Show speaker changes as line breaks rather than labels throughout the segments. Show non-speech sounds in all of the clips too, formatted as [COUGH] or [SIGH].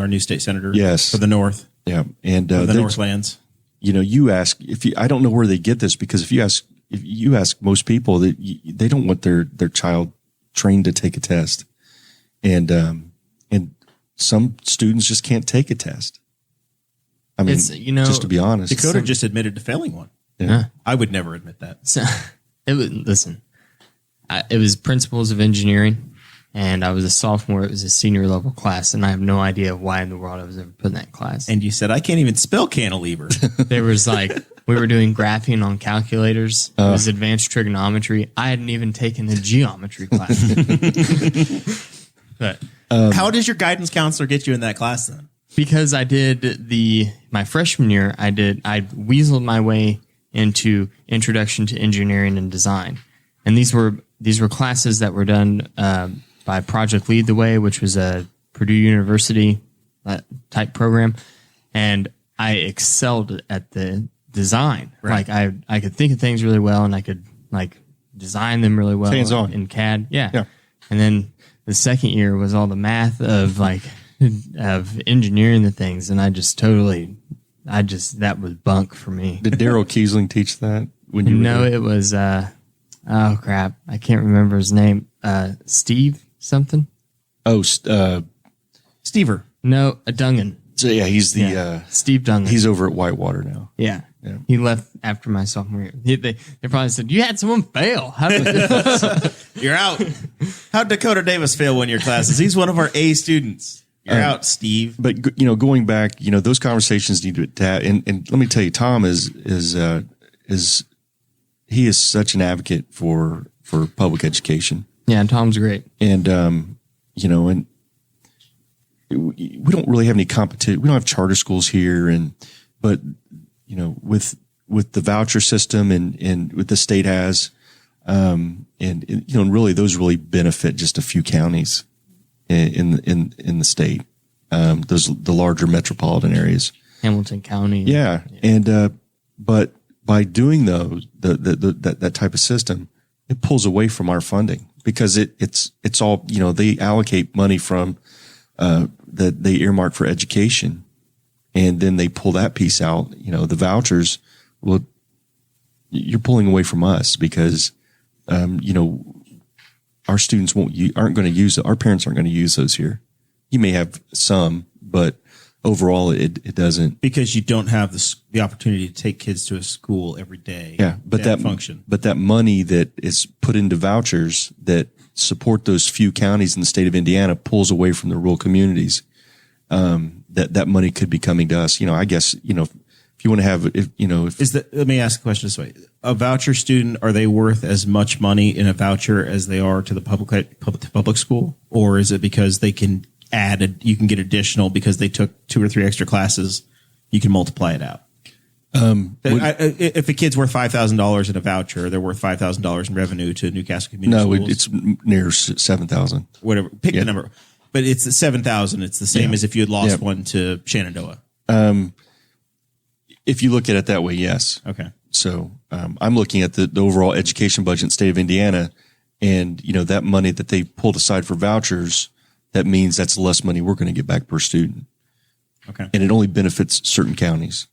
our new state senator.
Yes.
For the North,
Yeah, and
for
uh,
the
that's-
Northlands.
you know, you ask if you, I don't know where they get this because if you ask, if you ask most people that y they don't want their, their child trained to take a test. And, um, and some students just can't take a test. I mean,
It's, you know,
just to be honest,
Dakota just admitted to failing one.
Yeah.
I would never admit that.
So, [LAUGHS] it was listen. I, it was principles of engineering, and I was a sophomore. It was a senior level class, and I have no idea why in the world I was ever put in that
[LAUGHS]
class.
And you said I can't even spell
[LAUGHS]
cantilever.
there was like we were doing graphing on calculators. it was advanced trigonometry. I hadn't even taken a geometry class. but
Um,
How does your guidance counselor get you in that class then?
because I did the my freshman year, I did I weaseled my way into introduction to engineering and design, and these were these were classes that were done uh, by Project Lead the Way, which was a Purdue University uh, type program, and I excelled at the design. Like I I could think of things really well, and I could like design them really well
Hands-on.
in CAD. Yeah.
Yeah.
And then the second year was all the math of like of engineering the things, and I just totally, I just that was bunk for me.
did Daryl Kiesling teach that when you were
No, it was uh, oh crap, I can't remember his name. Uh, Steve something.
Oh, st- uh,
Stever.
No, a Dungan.
so yeah, he's the, uh,
Steve Dungan.
he's over at Whitewater now.
yeah. He left after my sophomore year. He, they, they probably said, You had someone fail. How did
[LAUGHS]
you-"
You're out. How'd Dakota Davis fail one of your classes? He's one of our A students. You're
Um,
out, Steve.
but g- you know, going back, you know, those conversations need to that. And, and let me tell you, Tom is is uh, is he is such an advocate for for public education,
[LAUGHS] yeah, Tom's great.
and um, you know, and we we don't really have any competition. We don't have charter schools here, and but you know, with with the voucher system and and what the state has, um, and and, you know, and really those really benefit just a few counties in in in, in the state. Um, those the larger metropolitan areas.
Hamilton County.
Yeah, and uh, but by doing those, the, the, the that that type of system, it pulls away from our funding because it it's it's all you know they allocate money from uh, that they earmark for education, and then they pull that piece out. You know, the vouchers. Well, you're pulling away from us because um, you know our students won't you aren't going to use our parents aren't going to use those here. You may have some, but overall, it it doesn't
Because you don't have the, s- the opportunity to take kids to a school every day.
Yeah, but that,
function.
but that money that is put into vouchers that support those few counties in the state of Indiana pulls away from the rural communities. Um, that that money could be coming to us. You know, I guess you know if, if you want to have if you know if
Is that, let me ask a question this way. A voucher student, are they worth as much money in a voucher as they are to the public, public, to public school? Or is it because they can add, a, you can get additional because they took two or three extra classes, you can multiply it out? Um, if a kid's worth five thousand dollars in a voucher, they're worth five thousand dollars in revenue to Newcastle Community
no,
Schools.
it, it's near seven thousand.
whatever. Pick the number, but it's the seven thousand. It's the same
Yeah.
as if you had lost
Yeah.
one to Shenandoah.
If you look at it that way, yes.
Okay,
So um, I'm looking at the, the overall education budget in the state of Indiana, and you know that money that they pulled aside for vouchers, that means that's less money we're going to get back per student.
okay.
and it only benefits certain counties.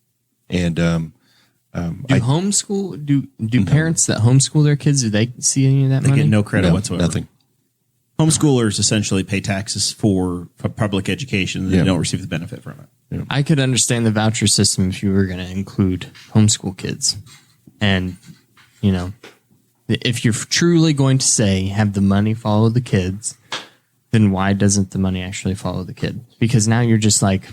And um,
Do homeschool do do parents that homeschool their kids, do they see any of that
They
money?
get no credit
no,
whatsoever.
nothing.
Homeschoolers essentially pay taxes for, for public education. and They
Yeah.
don't receive the benefit from it.
I could understand the voucher system if you were going to include homeschool kids. And, you know, if you're truly going to say have the money follow the kids, then why doesn't the money actually follow the kid? Because now you're just like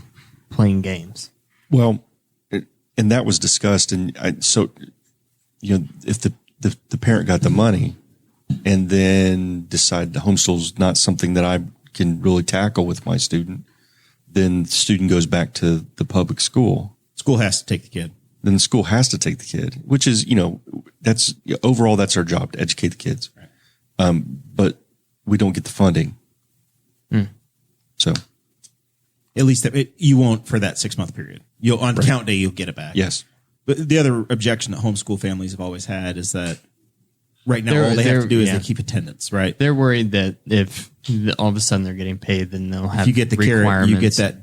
playing games.
Well, it, and that was discussed. And I, so, you know, if the, the the parent got the money, and then decide the homeschool's not something that I can really tackle with my student, then the student goes back to the public school.
School has to take the kid.
Then the school has to take the kid, which is you know, that's overall that's our job to educate the kids. Um, but we don't get the funding, so.
At least that, it, you won't for that six month period. You'll on count day you'll get it back.
Yes.
But the other objection that homeschool families have always had is that right now
They're-
all they have
they're-
to do is
yeah.
they keep attendance. Right.
They're worried that if all of a sudden they're getting paid, then they'll have
you get the carrot. You
requirements.
get that